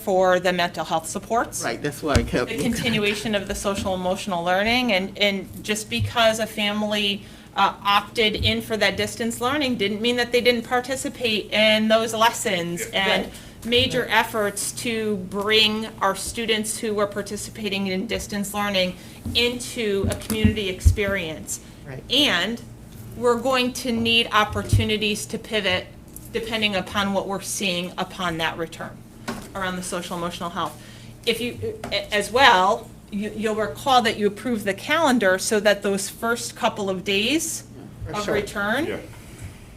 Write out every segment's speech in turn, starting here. for the mental health supports. Right, that's why I kept. The continuation of the social emotional learning, and, and just because a family uh, opted in for that distance learning didn't mean that they didn't participate in those lessons and major efforts to bring our students who were participating in distance learning into a community experience. Right. And we're going to need opportunities to pivot depending upon what we're seeing upon that return around the social emotional health. If you, a- as well, you, you'll recall that you approved the calendar so that those first couple of days Are of short. return Yeah,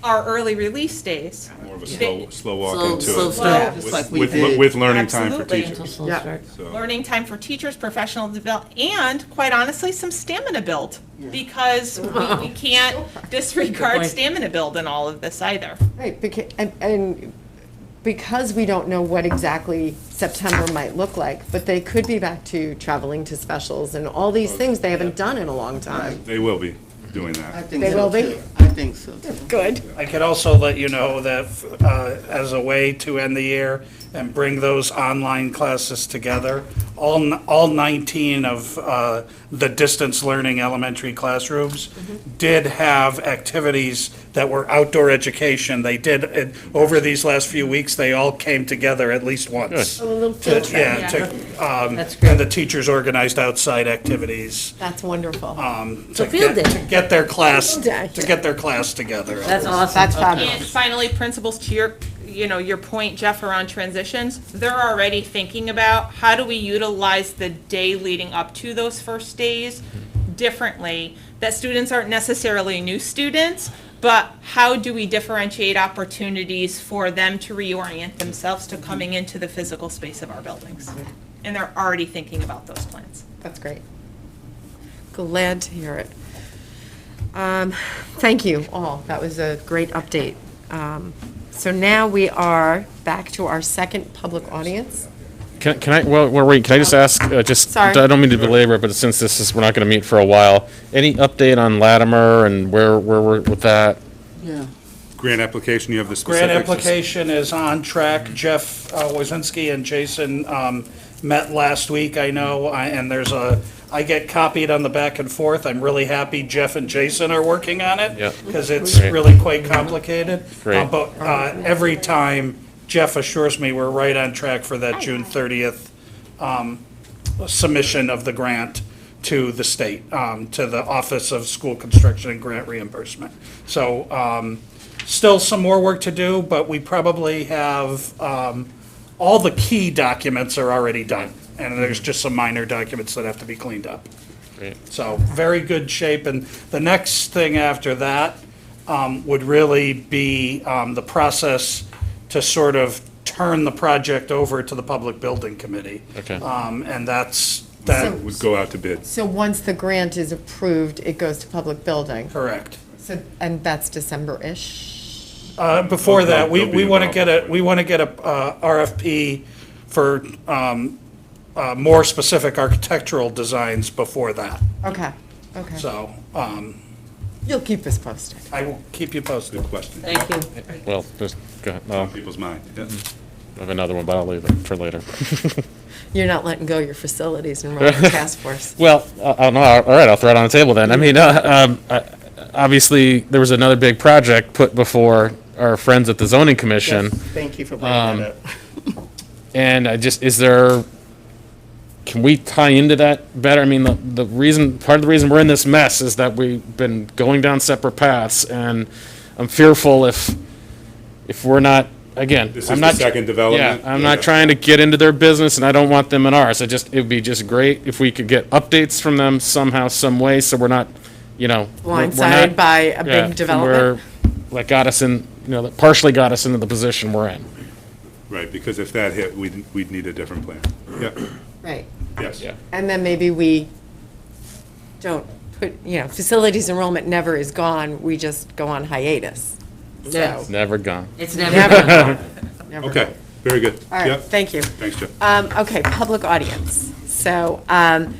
are early release days. more of a slow, slow walk Slow- into it. slow start, just With- like we with- did. With learning time for Absolutely. teachers. Yeah. So, Learning time for teachers, professional develop, and quite honestly, some stamina build. Because we, we can't disregard stamina build in all of this either. Right, beca- and, and because we don't know what exactly September might look like, but they could be back to traveling to specials and all these Oh, things they haven't done in a long time. They will be doing I that. think They so will be. too. I think so too. Good. I could also let you know that uh, as a way to end the year and bring those online classes together, all, n- all 19 of uh, the distance learning elementary classrooms did have activities that were outdoor education. They did, and over these last few weeks, they all came together at least once. To- Yeah, to, um, and the teachers organized outside activities That's wonderful. Oh, to field get, day. to get their class, day. to get their class together. That's awesome. That's And fabulous. finally, principals, to your, you know, your point, Jeff, around transitions, they're already thinking about how do we utilize the day leading up to those first days differently? That students aren't necessarily new students, but how do we differentiate opportunities for them to reorient themselves to coming into the physical space of our buildings? And they're already thinking about those plans. That's great. Glad to hear it. Um, Thank you all. That was a great update. Um, So now we are back to our second public audience. Can, can I, well, well, wait, can I just ask, uh, just, Sorry. I don't mean to belabor, it, but since this is, we're not gonna meet for a while, any update on Latimer and where, where we're with that? Yeah. Grant application, you have the specifics. Grant application is on track. Jeff uh, Wazinski and Jason um, met last week, I know, I- and there's a, I get copied on the back and forth. I'm really happy Jeff and Jason are working on it. Yeah. Because it's Great. really quite complicated. Uh, Great. But uh, every time, Jeff assures me we're right on track for that June 30th um, submission of the grant to the state, um, to the Office of School Construction and Grant Reimbursement. So um, still some more work to do, but we probably have, um, all the key documents are already done. And there's just some minor documents that have to be cleaned up. Great. So very good shape. And the next thing after that um, would really be um, the process to sort of turn the project over to the Public Building Committee. Okay. Um, And that's, that, Would go out to bid. So once the grant is approved, it goes to public building. correct. So, and that's December-ish? Uh, Before that, we, They'll be we want to involved. get a, we want to get a uh, RFP for um, uh, more specific architectural designs before that. Okay, okay. So um, You'll keep us posted. I will keep you posted. Good question. Thank you. Well, just, go ahead, no, People's mind. Yeah. Mm-hmm. I have another one, but I'll leave it for later. You're not letting go your facilities and running the task force. Well, I I don't know, all right, I'll throw it on the table then, I mean, uh, um, I- obviously, there was another big project put before our friends at the zoning commission. Thank you for bringing that up. And I just, is there, can we tie into that better? I mean, the, the reason, part of the reason we're in this mess is that we've been going down separate paths, and I'm fearful if, if we're not, again, This I'm is the not. second Yeah, development. I'm not trying to get into their business, and I don't want them in ours. I just, it'd be just great if we could get updates from them somehow, some way, so we're not, you know. we're- we're not- Blindsided by a yeah, big development. we're- That got us in, you know, that partially got us into the position we're in. Right, because if that hit, we'd, we'd need a different plan. Yeah, Right. yes. Yeah. And then maybe we don't put, you know, facilities enrollment never is gone, we just go on hiatus. Yeah. Never gone. It's never, Never. Okay, very good. All right, Yep. thank you. Thanks, Jeff. Um, okay, public audience. So, um,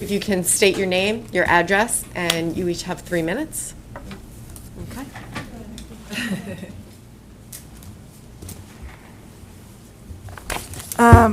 if you can state your name, your address, and you each have three minutes. Okay.